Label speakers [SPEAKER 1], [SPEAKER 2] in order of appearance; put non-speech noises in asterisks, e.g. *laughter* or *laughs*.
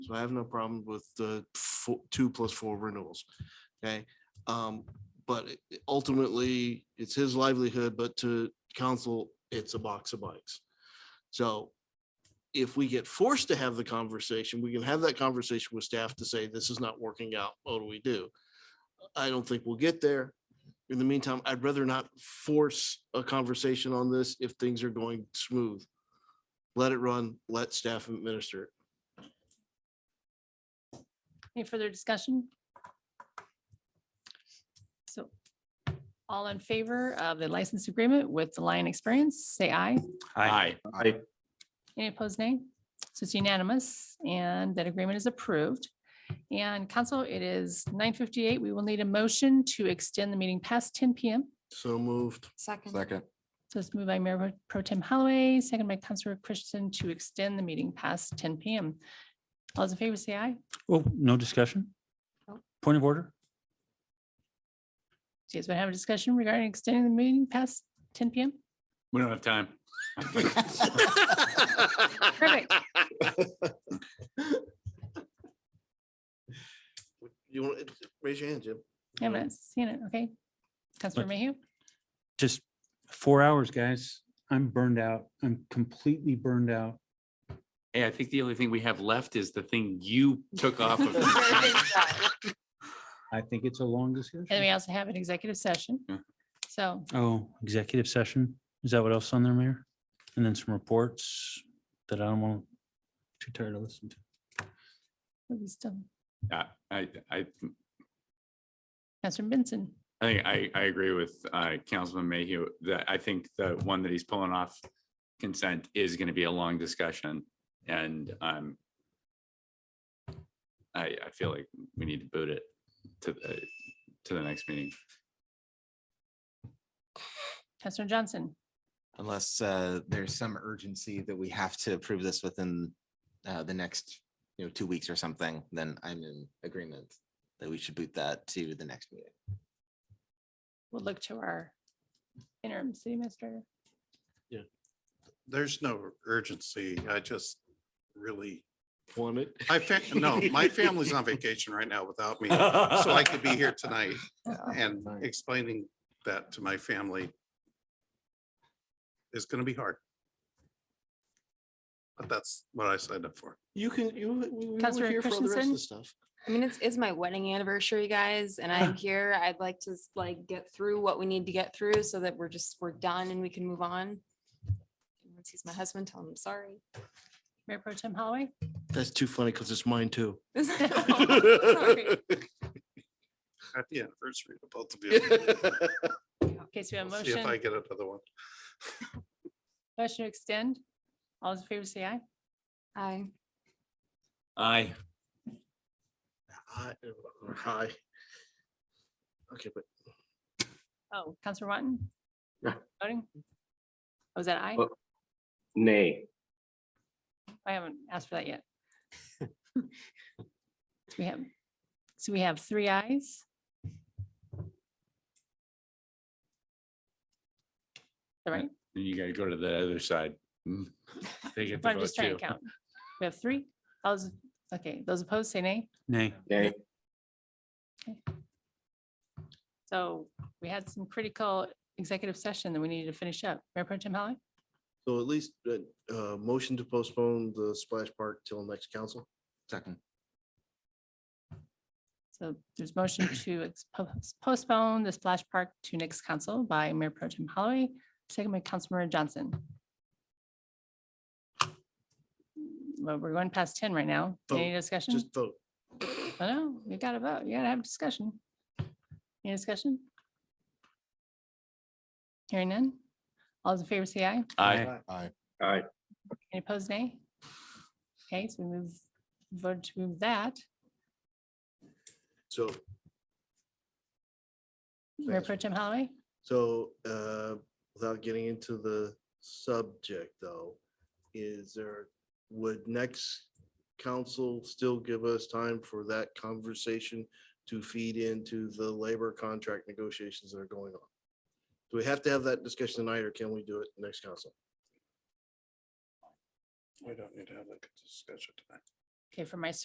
[SPEAKER 1] So I have no problem with the fo- two plus four renewals. Okay, um, but it- ultimately, it's his livelihood, but to council, it's a box of bikes. So if we get forced to have the conversation, we can have that conversation with staff to say, this is not working out. What do we do? I don't think we'll get there. In the meantime, I'd rather not force a conversation on this if things are going smooth. Let it run, let staff administer it.
[SPEAKER 2] Any further discussion? So all in favor of the license agreement with the Lion Experience, say aye.
[SPEAKER 3] Aye.
[SPEAKER 4] Aye.
[SPEAKER 2] Any opposed, nay? So it's unanimous and that agreement is approved. And council, it is nine fifty-eight. We will need a motion to extend the meeting past ten PM.
[SPEAKER 1] So moved.
[SPEAKER 5] Second,
[SPEAKER 4] Second.
[SPEAKER 2] So it's moved by Mayor Pro Tem Holloway, second by Councilor Christian to extend the meeting past ten PM. All those in favor, say aye.
[SPEAKER 3] Well, Oh, no discussion?
[SPEAKER 5] Nope.
[SPEAKER 3] Point of order?
[SPEAKER 2] Do you guys want to have a discussion regarding extending the meeting past ten PM?
[SPEAKER 6] We don't have time.
[SPEAKER 2] Perfect.
[SPEAKER 1] You want, raise your *laughs* hand, Jim.
[SPEAKER 2] I haven't seen it, okay? Councilor Mayhew?
[SPEAKER 3] Just four hours, guys. I'm burned out. I'm completely burned out.
[SPEAKER 6] Hey, I think the only thing we have left is the thing you took off of.
[SPEAKER 2] *laughs*
[SPEAKER 6] *laughs*
[SPEAKER 3] I think it's a long discussion.
[SPEAKER 2] And we also have an executive session.
[SPEAKER 6] Yeah.
[SPEAKER 2] So
[SPEAKER 3] Oh, executive session. Is that what else on there, Mayor? And then some reports that I don't want, too tired to listen to.
[SPEAKER 2] we'll be still,
[SPEAKER 6] I, I, I
[SPEAKER 2] Councilor Benson,
[SPEAKER 6] I think I, I agree with uh, Councilman Mayhew that I think the one that he's pulling off consent is going to be a long discussion and um I, I feel like we need to boot it to, the to the next meeting.
[SPEAKER 2] Councilor Johnson,
[SPEAKER 4] Unless uh, there's some urgency that we have to approve this within uh, the next, you know, two weeks or something, then I'm in agreement that we should boot that to the next meeting.
[SPEAKER 2] we'll look to our interim city administrator.
[SPEAKER 7] There's no urgency. I just really,
[SPEAKER 1] Want it?
[SPEAKER 7] I, fa- no, my family's on vacation right now without me. *laughs* So I could be here tonight and explaining that to my family is going to be hard. But that's what I signed up for.
[SPEAKER 1] *laughs* You can, you, we- we were
[SPEAKER 2] Councilor
[SPEAKER 1] here for all the rest of
[SPEAKER 2] Christensen?
[SPEAKER 1] the stuff.
[SPEAKER 5] I mean, it's, it's my wedding anniversary, guys, and I'm here. I'd like to s- like get through what we need to get through so that we're just, we're done and we can move on. Once he's my husband, tell him I'm sorry. *laughs*
[SPEAKER 2] Mayor Pro Tem Holloway,
[SPEAKER 1] That's too funny because it's mine too.
[SPEAKER 5] Sorry.
[SPEAKER 7] Happy anniversary to both of you.
[SPEAKER 2] okay, so we have a
[SPEAKER 7] We'll See if I
[SPEAKER 2] motion,
[SPEAKER 7] get another one.
[SPEAKER 2] motion to extend. All those in favor, say aye.
[SPEAKER 5] Aye.
[SPEAKER 6] Aye.
[SPEAKER 1] Hi- or hi. Okay, but
[SPEAKER 2] Oh, Councilor Watton?
[SPEAKER 8] Yeah.
[SPEAKER 2] Voting? Oh, Was that aye?
[SPEAKER 8] Oh. Nay.
[SPEAKER 2] I haven't asked for that yet. *laughs* So We have, so we have three ayes. All right,
[SPEAKER 6] Then you got to go to the other side. Mm.
[SPEAKER 2] *laughs*
[SPEAKER 6] They get
[SPEAKER 2] but
[SPEAKER 6] to
[SPEAKER 2] I'm
[SPEAKER 6] vote
[SPEAKER 2] just trying
[SPEAKER 6] too.
[SPEAKER 2] to count. We have three. I was, okay, those opposed say nay.
[SPEAKER 3] Nay.
[SPEAKER 8] Nay.
[SPEAKER 2] So we had some critical executive session that we needed to finish up. Mayor Pro Tem Holly?
[SPEAKER 1] so at least, uh, uh, motion to postpone the splash park till next council.
[SPEAKER 4] Second.
[SPEAKER 2] So there's motion to ex- pos- postpone the splash park to next council by Mayor Pro Tem Holloway, second by Councilmember Johnson. Well, we're going past ten right now. Any
[SPEAKER 1] Vote.
[SPEAKER 2] discussion?
[SPEAKER 1] Just vote.
[SPEAKER 2] I know, you gotta vote, you gotta have discussion. Any discussion? Hearing none? All those in favor say aye.
[SPEAKER 6] Aye.
[SPEAKER 8] Aye.
[SPEAKER 2] Any opposed, nay? Okay, so we move, vote to move that.
[SPEAKER 1] So,
[SPEAKER 2] Mayor
[SPEAKER 1] Thanks.
[SPEAKER 2] Pro Tem Holloway?
[SPEAKER 1] so, uh, without getting into the subject though, is there, would next council still give us time for that conversation to feed into the labor contract negotiations that are going on? Do we have to have that discussion tonight or can we do it next council?
[SPEAKER 7] We don't need to have that discussion tonight.
[SPEAKER 2] Okay, for my s-